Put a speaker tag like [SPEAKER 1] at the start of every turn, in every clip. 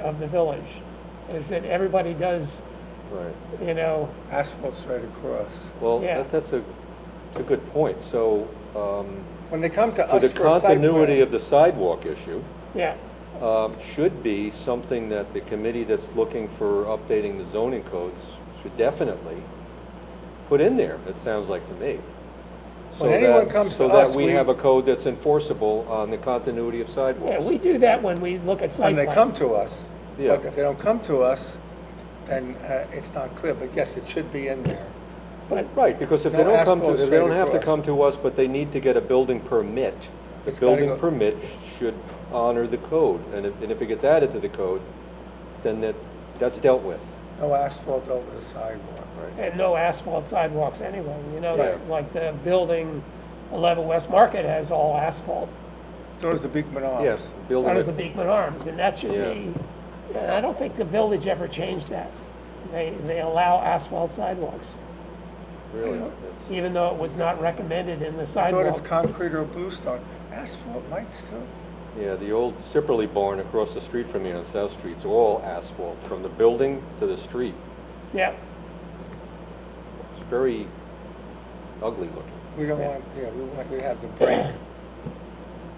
[SPEAKER 1] of the village, is that everybody does,
[SPEAKER 2] Right.
[SPEAKER 1] you know,
[SPEAKER 3] Asphalt's right across.
[SPEAKER 2] Well,
[SPEAKER 1] Yeah.
[SPEAKER 2] that- that's a, it's a good point. So um,
[SPEAKER 3] When they come to
[SPEAKER 2] for the
[SPEAKER 3] us for a site
[SPEAKER 2] continuity
[SPEAKER 3] plan,
[SPEAKER 2] of the sidewalk issue,
[SPEAKER 1] yeah,
[SPEAKER 2] um, should be something that the committee that's looking for updating the zoning codes should definitely put in there, it sounds like to me. So
[SPEAKER 3] When anyone
[SPEAKER 2] that-
[SPEAKER 3] comes to
[SPEAKER 2] So
[SPEAKER 3] us,
[SPEAKER 2] that we
[SPEAKER 3] we-
[SPEAKER 2] have a code that's enforceable on the continuity of
[SPEAKER 1] yeah,
[SPEAKER 2] sidewalks.
[SPEAKER 1] we do that when we look at site
[SPEAKER 3] when
[SPEAKER 1] plans.
[SPEAKER 3] they come to us.
[SPEAKER 2] Yeah.
[SPEAKER 3] But if they don't come to us, then uh, it's not clear, but yes, it should be in there.
[SPEAKER 1] But,
[SPEAKER 2] Right, because if they
[SPEAKER 3] No
[SPEAKER 2] don't come to,
[SPEAKER 3] asphalt
[SPEAKER 2] if they don't
[SPEAKER 3] straight
[SPEAKER 2] have to
[SPEAKER 3] across.
[SPEAKER 2] come to us, but they need to get a building permit, the
[SPEAKER 3] It's gotta
[SPEAKER 2] building
[SPEAKER 3] go-
[SPEAKER 2] permit should honor the code. And if, and if it gets added to the code, then that, that's dealt with.
[SPEAKER 3] No asphalt over the sidewalk.
[SPEAKER 1] and no asphalt sidewalks anyway, you know,
[SPEAKER 3] Yeah.
[SPEAKER 1] like- like the building, 11 West Market has all asphalt.
[SPEAKER 3] So does the Beekman Arms.
[SPEAKER 2] Yes,
[SPEAKER 1] So
[SPEAKER 2] building,
[SPEAKER 1] does the
[SPEAKER 2] it-
[SPEAKER 1] Beekman Arms, and that should
[SPEAKER 2] Yeah.
[SPEAKER 1] be, and I don't think the village ever changed that. They, they allow asphalt sidewalks,
[SPEAKER 2] really, that's-
[SPEAKER 1] even though it was not recommended in the
[SPEAKER 3] I thought it's
[SPEAKER 1] sidewalk.
[SPEAKER 3] concrete or bluestone. Asphalt might still,
[SPEAKER 2] yeah, the old Sipperly barn across the street from me on South Street's all asphalt, from the building to the street.
[SPEAKER 1] Yeah,
[SPEAKER 2] It's very ugly looking.
[SPEAKER 3] we don't want, yeah, we want, we have the break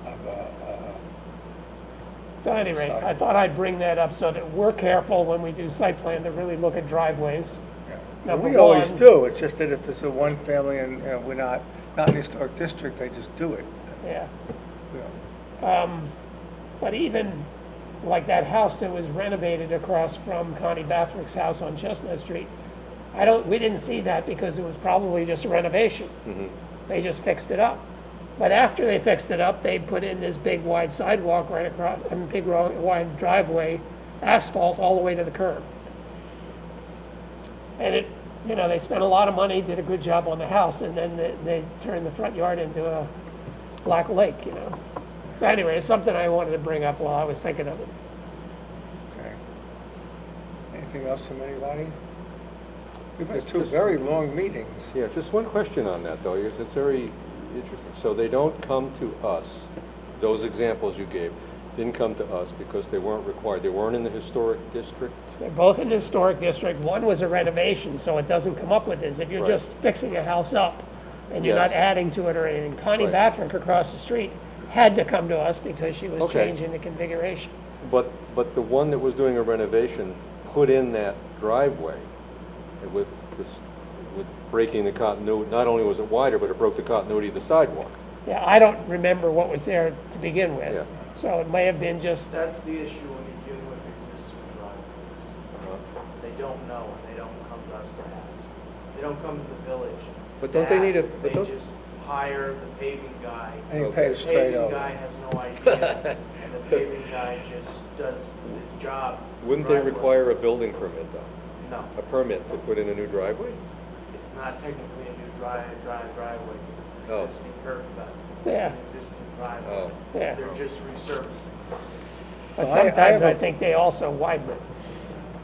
[SPEAKER 3] of, uh, uh,
[SPEAKER 1] so at any rate, I thought I'd bring that up so that we're careful when we do site plan to really look at driveways.
[SPEAKER 3] yeah.
[SPEAKER 1] Number
[SPEAKER 3] We always
[SPEAKER 1] one-
[SPEAKER 3] do, it's just that if there's a one family and uh, we're not, not in the historic district, they just do it.
[SPEAKER 1] Yeah.
[SPEAKER 3] We don't-
[SPEAKER 1] But even like that house that was renovated across from Connie Bathrick's house on Chestnut Street, I don't, we didn't see that because it was probably just a renovation. They just fixed it up. But after they fixed it up, they put in this big wide sidewalk right across, I mean, big ro- wide driveway, asphalt all the way to the curb. And it, you know, they spent a lot of money, did a good job on the house, and then they, they turned the front yard into a black lake, you know? So anyway, it's something I wanted to bring up while I was thinking of it.
[SPEAKER 3] Okay. Anything else from anybody? We've had two very long meetings.
[SPEAKER 2] Yeah, just one question on that, though, because it's very interesting. So they don't come to us, those examples you gave, didn't come to us because they weren't required, they weren't in the historic district?
[SPEAKER 1] They're both in the historic district. One was a renovation, so it doesn't come up with this. If you're
[SPEAKER 2] Right.
[SPEAKER 1] just fixing a house up and you're
[SPEAKER 2] Yes.
[SPEAKER 1] not adding to it or anything. Connie
[SPEAKER 2] Right.
[SPEAKER 1] Bathrick across the street had to come to us because she was
[SPEAKER 2] Okay.
[SPEAKER 1] changing the configuration.
[SPEAKER 2] But, but the one that was doing a renovation put in that driveway with, this- with breaking the continuity, not only was it wider, but it broke the continuity of the sidewalk.
[SPEAKER 1] Yeah, I don't remember what was there to begin with.
[SPEAKER 2] Yeah.
[SPEAKER 1] So it may have been just,
[SPEAKER 4] That's the issue when you're dealing with existing driveways.
[SPEAKER 2] Uh-huh.
[SPEAKER 4] They don't know and they don't come to us to ask. They don't come to the village.
[SPEAKER 2] But
[SPEAKER 4] to
[SPEAKER 2] don't they need a-
[SPEAKER 4] ask.
[SPEAKER 2] but
[SPEAKER 4] They
[SPEAKER 2] don't-
[SPEAKER 4] just hire the paving guy.
[SPEAKER 3] And he
[SPEAKER 2] Okay.
[SPEAKER 3] paid
[SPEAKER 4] The
[SPEAKER 3] straight
[SPEAKER 4] paving guy
[SPEAKER 3] over.
[SPEAKER 4] has no idea and the paving guy just does his job.
[SPEAKER 2] Wouldn't they
[SPEAKER 4] driveway.
[SPEAKER 2] require a building permit, though?
[SPEAKER 4] No,
[SPEAKER 2] A permit to put in a new driveway?
[SPEAKER 4] it's not technically a new dry, dry driveway because it's an
[SPEAKER 2] Oh.
[SPEAKER 4] existing curb cut.
[SPEAKER 1] Yeah.
[SPEAKER 4] It's an existing
[SPEAKER 2] Oh.
[SPEAKER 4] driveway.
[SPEAKER 1] Yeah.
[SPEAKER 4] They're just resurfacing.
[SPEAKER 1] but
[SPEAKER 3] Well, I- I
[SPEAKER 1] sometimes
[SPEAKER 3] have a-
[SPEAKER 1] I think they also widen it.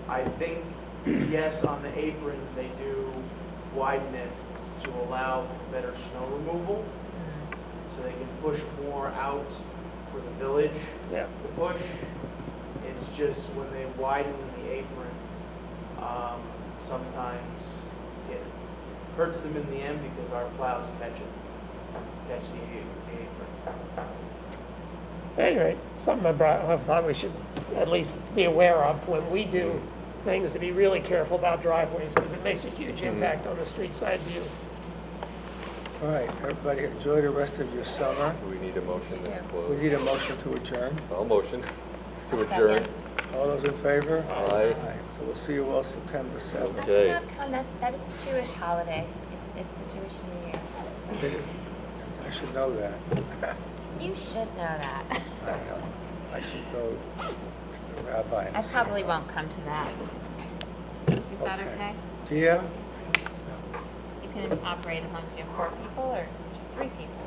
[SPEAKER 4] I think, yes, on the apron, they do widen it to allow for better snow removal, so they can push more out for the village
[SPEAKER 1] Yeah.
[SPEAKER 4] to push. It's just when they widen the apron, um, sometimes it hurts them in the end because our plows catch it, catch the a- the apron.
[SPEAKER 1] Anyway, something I brought, I thought we should at least be aware of when we do things to be really careful about driveways because it makes a huge impact on the street side view.
[SPEAKER 3] All right, everybody, enjoy the rest of your summer.
[SPEAKER 2] Do we need a motion to
[SPEAKER 3] We
[SPEAKER 2] close?
[SPEAKER 3] need a motion to adjourn.
[SPEAKER 2] I'll motion to adjourn.
[SPEAKER 3] All those in favor?
[SPEAKER 2] Aye.
[SPEAKER 3] All right, so we'll see you all September 7th.
[SPEAKER 2] Okay.
[SPEAKER 5] I cannot come. That, that is a Jewish holiday. It's, it's the Jewish New Year. So
[SPEAKER 3] I should know that.
[SPEAKER 5] you should know that.
[SPEAKER 3] I know. I should go to the rabbi. and
[SPEAKER 5] I
[SPEAKER 3] say-
[SPEAKER 5] probably won't come to that. Is that
[SPEAKER 3] Okay.
[SPEAKER 5] okay?
[SPEAKER 3] Yeah?
[SPEAKER 5] You can operate as long as you have four people or just three people.